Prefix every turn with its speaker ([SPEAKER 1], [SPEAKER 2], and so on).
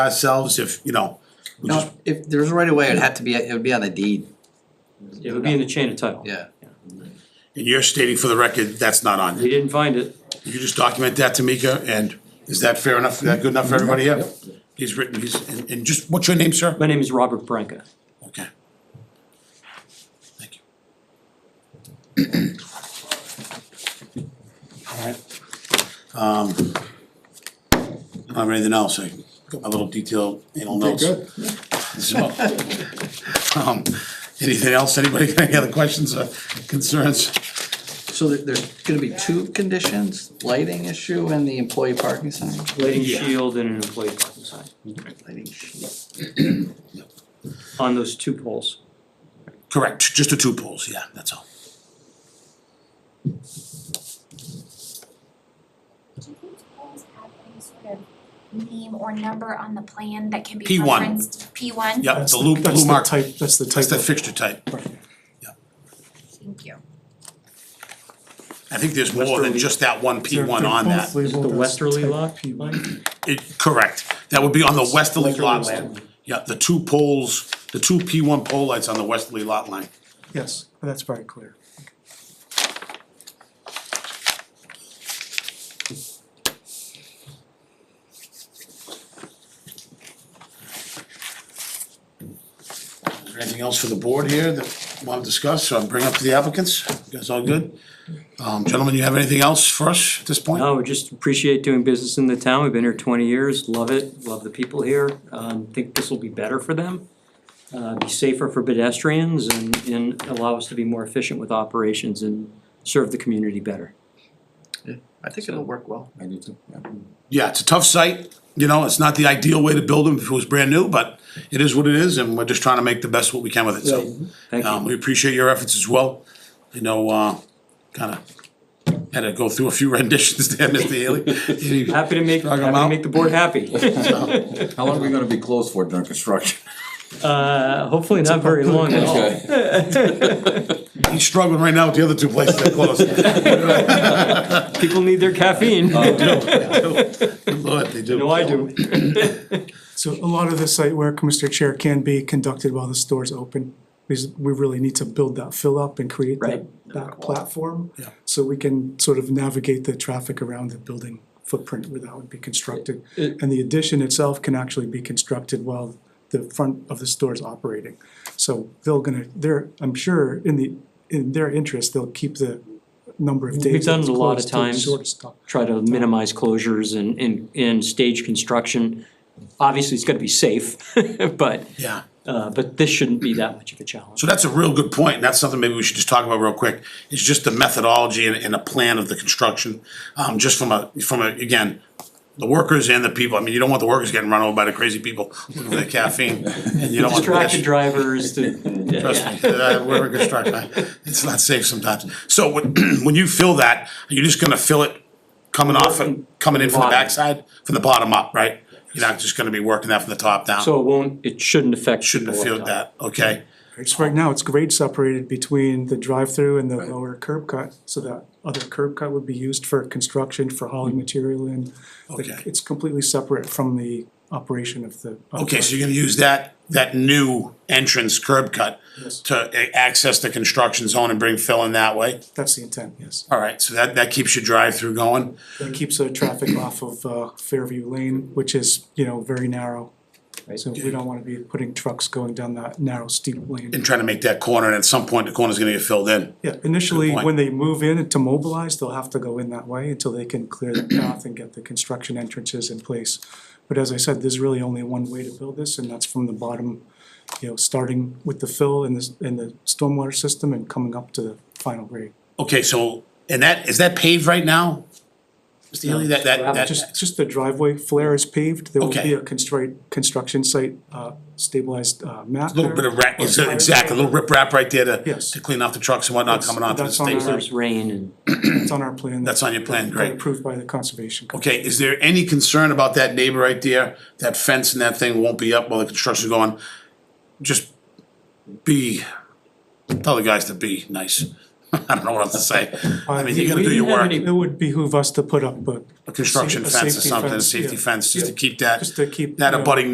[SPEAKER 1] ourselves if, you know, we just,
[SPEAKER 2] No, if there's a right of way, it'd have to be, it would be on the deed,
[SPEAKER 3] It would be in the chain of title.
[SPEAKER 2] yeah.
[SPEAKER 1] and you're stating for the record, that's not on.
[SPEAKER 3] We didn't find it.
[SPEAKER 1] You just document that, Tamika, and is that fair enough? Is that good enough for everybody here? He's written, he's, and, and just, what's your name, sir?
[SPEAKER 3] My name is Robert Branca.
[SPEAKER 1] Okay. Thank you. Alright. Um, I don't have anything else, I got my little detailed anal notes.
[SPEAKER 4] good.
[SPEAKER 1] So, um, anything else, anybody got any other questions or concerns?
[SPEAKER 2] So there, there's gonna be two conditions, lighting issue and the employee parking sign,
[SPEAKER 3] Lighting shield and an employee parking sign
[SPEAKER 2] lighting issue.
[SPEAKER 3] on those two poles.
[SPEAKER 1] Correct, just the two poles, yeah, that's all.
[SPEAKER 5] Do these polls have any sort of name or number on the plan that can be
[SPEAKER 1] P one.
[SPEAKER 5] referenced? P one. P one?
[SPEAKER 1] Yeah, it's a loop,
[SPEAKER 4] That's
[SPEAKER 1] blue
[SPEAKER 4] the
[SPEAKER 1] mark,
[SPEAKER 4] type, that's the
[SPEAKER 1] that's
[SPEAKER 4] type
[SPEAKER 1] the
[SPEAKER 4] of,
[SPEAKER 1] fixture type.
[SPEAKER 5] Thank you.
[SPEAKER 1] I think there's more than
[SPEAKER 3] Westerly.
[SPEAKER 1] just that one P one on
[SPEAKER 4] They're
[SPEAKER 1] that.
[SPEAKER 4] both
[SPEAKER 3] Is it the
[SPEAKER 4] labeled as
[SPEAKER 3] westerly
[SPEAKER 4] type
[SPEAKER 3] lot
[SPEAKER 4] P one.
[SPEAKER 3] line?
[SPEAKER 1] It, correct, that would be on the westerly lot
[SPEAKER 4] Westerly.
[SPEAKER 1] line. Yeah, the two poles, the two P one pole lights on the westerly lot line.
[SPEAKER 4] Yes, that's very clear.
[SPEAKER 1] Is there anything else for the board here that you wanna discuss, or bring up to the applicants? You guys all good? Um, gentlemen, you have anything else for us at this point?
[SPEAKER 3] No, we just appreciate doing business in the town. We've been here twenty years, love it, love the people here. Um, think this will be better for them. Uh, be safer for pedestrians and, and allow us to be more efficient with operations and serve the community better.
[SPEAKER 2] I think it'll work well.
[SPEAKER 6] I do too, yeah.
[SPEAKER 1] Yeah, it's a tough site, you know, it's not the ideal way to build them if it was brand new, but it is what it is, and we're just trying to make the best what we can with it, so.
[SPEAKER 3] Thank
[SPEAKER 1] Um,
[SPEAKER 3] you.
[SPEAKER 1] we appreciate your efforts as well. I know, uh, kinda had to go through a few renditions there, Mr. Haley.
[SPEAKER 3] Happy to make,
[SPEAKER 1] Drag 'em
[SPEAKER 3] happy to
[SPEAKER 1] out.
[SPEAKER 3] make the board happy.
[SPEAKER 6] How long are we gonna be closed for during construction?
[SPEAKER 3] Uh, hopefully not very long at all.
[SPEAKER 6] Okay.
[SPEAKER 1] He's struggling right now with the other two places that closed.
[SPEAKER 3] People need their caffeine.
[SPEAKER 1] Lord, they do.
[SPEAKER 3] No, I do.
[SPEAKER 4] So a lot of the site work, Mr. Chair, can be conducted while the store's open. Because we really need to build that fill up and create that,
[SPEAKER 3] Right.
[SPEAKER 4] that platform.
[SPEAKER 1] Yeah.
[SPEAKER 4] So we can sort of navigate the traffic around the building footprint where that would be constructed. And the addition itself can actually be constructed while the front of the store is operating. So they're gonna, they're, I'm sure in the, in their interest, they'll keep the number of days.
[SPEAKER 3] done
[SPEAKER 4] that it's
[SPEAKER 3] it a lot of
[SPEAKER 4] closed to the
[SPEAKER 3] times.
[SPEAKER 4] shortest time.
[SPEAKER 3] Try to minimize closures and, and, and stage construction. Obviously, it's gotta be safe, but,
[SPEAKER 1] Yeah.
[SPEAKER 3] uh, but this shouldn't be that much of a challenge.
[SPEAKER 1] So that's a real good point, and that's something maybe we should just talk about real quick. It's just the methodology and, and a plan of the construction, um, just from a, from a, again, the workers and the people. I mean, you don't want the workers getting run over by the crazy people looking for the caffeine. And you don't want the
[SPEAKER 3] Distracted
[SPEAKER 1] pedestrians-
[SPEAKER 3] drivers to,
[SPEAKER 1] Trust me, uh, we're in construction, it's not safe sometimes. So when, when you fill that, are you just gonna fill it coming off and coming in from the
[SPEAKER 3] Bottom.
[SPEAKER 1] backside, from the bottom up, right? You're not just gonna be working that from the top down,
[SPEAKER 3] so it won't, it shouldn't affect.
[SPEAKER 1] shouldn't have
[SPEAKER 3] people
[SPEAKER 1] filled
[SPEAKER 3] up
[SPEAKER 1] that, okay?
[SPEAKER 4] It's right now, it's grade separated between the drive-through and the lower curb cut, so that other curb cut would be used for construction, for hauling material in. Like,
[SPEAKER 1] Mm-hmm. Okay.
[SPEAKER 4] It's completely separate from the operation of the. of
[SPEAKER 1] Okay, so
[SPEAKER 4] the-
[SPEAKER 1] you're gonna use that, that new entrance curb cut
[SPEAKER 4] Yes.
[SPEAKER 1] to a- access the construction zone and bring fill in that way?
[SPEAKER 4] That's the intent, yes.
[SPEAKER 1] All right, so that, that keeps your drive-through going?
[SPEAKER 4] It keeps the traffic off of uh, Fairview Lane, which is, you know, very narrow. So we don't wanna be putting trucks going down that narrow steep lane.
[SPEAKER 1] And trying to make that corner, and at some point, the corner's gonna get filled in.
[SPEAKER 4] Yeah, initially,
[SPEAKER 1] point.
[SPEAKER 4] when they move in to mobilize, they'll have to go in that way until they can clear the path and get the construction entrances in place. But as I said, there's really only one way to build this, and that's from the bottom, you know, starting with the fill and the, and the stormwater system and coming up to the final grade.
[SPEAKER 1] Okay, so, and that, is that paved right now? Mr. Healy, that, that, that.
[SPEAKER 4] Just, just the driveway flare is paved, there will
[SPEAKER 1] Okay.
[SPEAKER 4] be a construct, construction site, uh, stabilized, uh, map
[SPEAKER 1] Little bit
[SPEAKER 4] there.
[SPEAKER 1] of rap, is it- exactly, a little rip wrap right there to,
[SPEAKER 4] Yes.
[SPEAKER 1] to clean off the trucks and whatnot
[SPEAKER 4] That's-
[SPEAKER 1] coming onto the
[SPEAKER 4] that's on
[SPEAKER 1] state.
[SPEAKER 4] our-
[SPEAKER 3] There's rain and.
[SPEAKER 4] It's on our plan.
[SPEAKER 1] That's on your plan,
[SPEAKER 4] Got
[SPEAKER 1] great.
[SPEAKER 4] Approved by the conservation. Commission.
[SPEAKER 1] Okay, is there any concern about that neighbor right there? That fence and that thing won't be up while the construction's going? Just be, tell the guys to be nice. I don't know what else to say. I mean, you gotta do your
[SPEAKER 3] We
[SPEAKER 1] work,
[SPEAKER 3] didn't have
[SPEAKER 4] It would behoove us to put up a
[SPEAKER 1] a construction
[SPEAKER 4] a
[SPEAKER 1] fence or
[SPEAKER 4] safety
[SPEAKER 1] something, a
[SPEAKER 4] fence,
[SPEAKER 1] safety
[SPEAKER 4] yeah.
[SPEAKER 1] fence, just to keep
[SPEAKER 4] Just
[SPEAKER 1] that,
[SPEAKER 4] to keep.
[SPEAKER 1] that
[SPEAKER 4] you know,
[SPEAKER 1] abutting